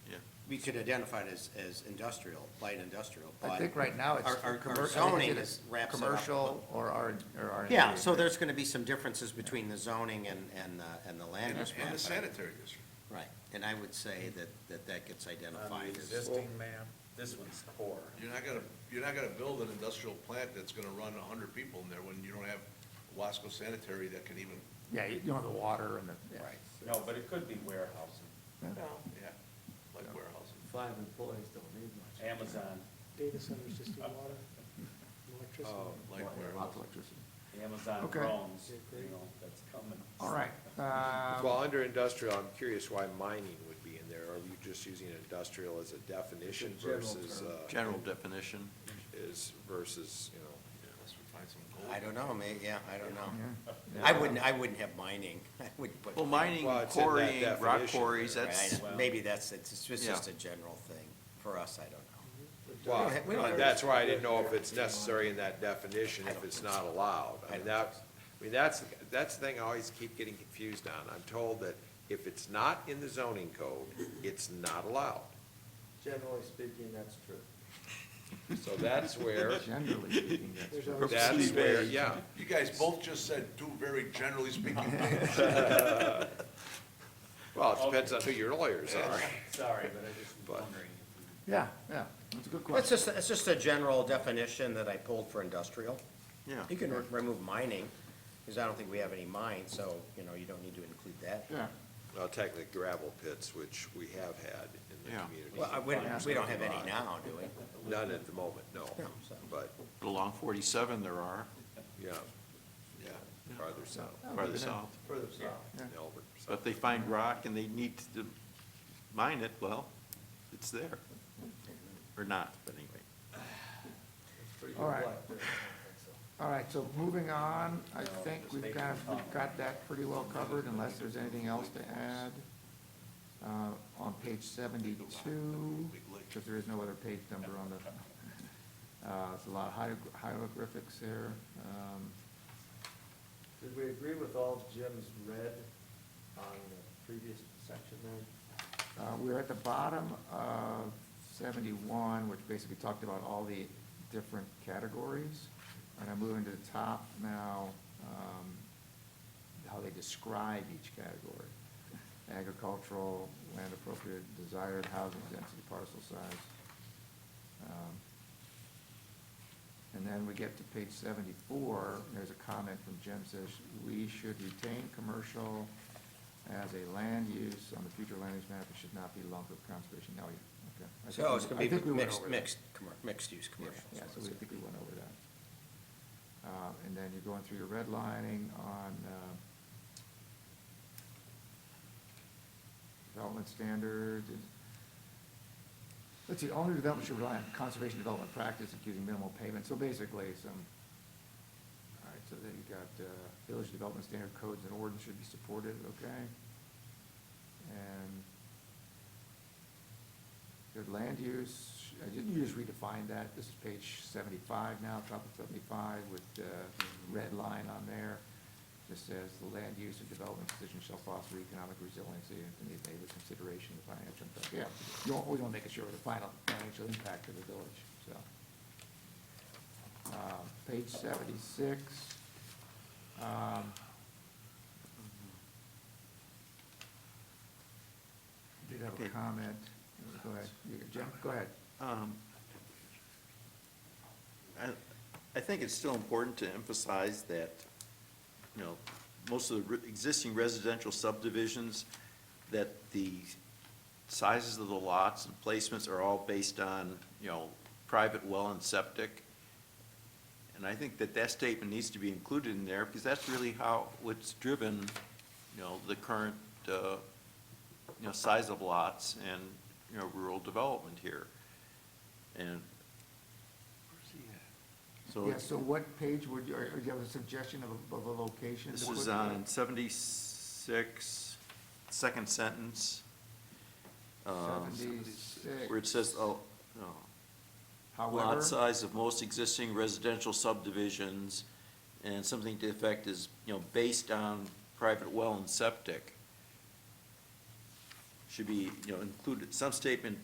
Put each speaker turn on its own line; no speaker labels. we could identify it as, as industrial, light industrial, but.
I think right now it's.
Our, our-
commer- I
our
think
zoning
it
is, wraps it up.
Commercial or R, or R.
Yeah, so there's gonna be some differences between the zoning and, and, the- and the land
And
use.
the
map.
sanitary district.
Right, and I would say that, that that gets
On
identified
the
as,
existing map, this one's core.
You're not gonna, you're not gonna build an industrial plant that's gonna run a hundred people in there when you don't have Wasco Sanitary that can even,
Yeah, you don't have the water and the, yeah.
No, but it could be warehousing.
yeah, like warehousing.
Five employees don't need much.
Amazon,
data centers just do water, electricity.
oh,
Like where-
Lots of electricity.
Amazon
Okay.
drones, you know, that's coming.
All right, um,
Well, under industrial, I'm curious why mining would be in there. Are you just using industrial as a definition
It's a general
versus,
term.
uh,
General definition.
is, versus, you know?
Unless we find some gold.
I don't know, may yeah, I don't know.
yeah.
I wouldn't, I wouldn't have mining, I wouldn't put.
Well, mining,
Well, it's in that
quarrying, rock
definition.
quarries, that's,
Right, I- Maybe that's, it's it's
Yeah.
just a general thing, for us, I don't know.
Well,
don't ha- we don't have-
that's why I didn't know if it's necessary in that definition, if it's not allowed. I mean, that, I mean, that's, that's the thing I always keep getting confused on. I'm told that if it's not in the zoning code, it's not allowed.
Generally speaking, that's true.
So that's where,
generally speaking, that's.
There's always-
that's where, yeah.
You guys both just said two very generally speaking things.
Well, it depends on who your lawyers are.
Sorry, but I just was
But-
wondering. if we-
Yeah, yeah, that's a good
Well, It's
question.
just, it's just a general definition that I pulled for industrial.
yeah.
You can re- remove mining, because I don't think we have any mines, so, you know, you don't need to include that.
Yeah,
Well, technically gravel pits, which we have had in the
Yeah.
Well, I-
community.
we, don't- we don't have any now, do we?
None at the moment, no, but,
Along 47 there are,
yeah, yeah, farther south,
farther south.
Further south.
in Elbert.
But if they find rock and they need to mine it, well, it's there. Or not, but anyway.
It's pretty
All right.
black there, I think so.
all right, so moving on, I
No,
think
just
we've
making
got,
a
we've
comment.
got that pretty well covered unless there's anything else to add. Uh, on page seventy-two, because there is no other page number on the, uh, it's a lot of hierog- hieroglyphics there. Um,
Did we agree with all of Jim's red on the previous section there?
Uh, We're at the bottom of 71, which basically talked about all the different categories. And I'm moving to the top now, um, how they describe each category. Agricultural, land appropriate, desired housing density, parcel size. Um, And then we get to page 74, there's a comment from Jim says, "We should retain commercial as a land use on the future land use map, it should not be lumped with conservation." No, yeah, okay. I think
So it's
we-
gonna
I
be
think we went
mixed,
over that.
mixed, commer- mixed-use
Yeah,
commercial.
Yeah,
so
so
it's
we, I
gonna
think
be-
we went over that. Uh, And then you're going through your redlining on uh, development standards. and- Let's see, all new development should rely on conservation development practice, including minimal pavement. So basically, some, all right, so then you've got uh, village development standard codes and ordinance should be supported, okay? And your land use, I didn't, you just redefined that, this is page seventy-five now, top of seventy-five with the red line on there. Just says, the land use and development decision shall foster economic resiliency and need neighbor consideration of financial impact. Yeah, you always want to make sure of the final financial impact of the village, so. Um, Page seventy-six. um, Did have a
Okay.
comment, go ahead, You- Jim, go ahead.
Um, I, I think it's still important to emphasize that, you know, most of the re- existing residential subdivisions, that the sizes of the lots and placements are all based on, you know, private well and septic. And I think that that statement needs to be included in there, because that's really how, what's driven, you know, the current, uh, you know, size of lots and, you know, rural development here. And. So
Yeah,
it's-
so what page would you, or or do you have a suggestion of a, of a location? to
this
put
is uh,
that?
on seventy-six, second sentence. um, Where it
76.
says, oh, no.
However,
Lot size of most existing residential subdivisions and something to the effect is, you know, based on private well and septic. Should be, you know, included, some statement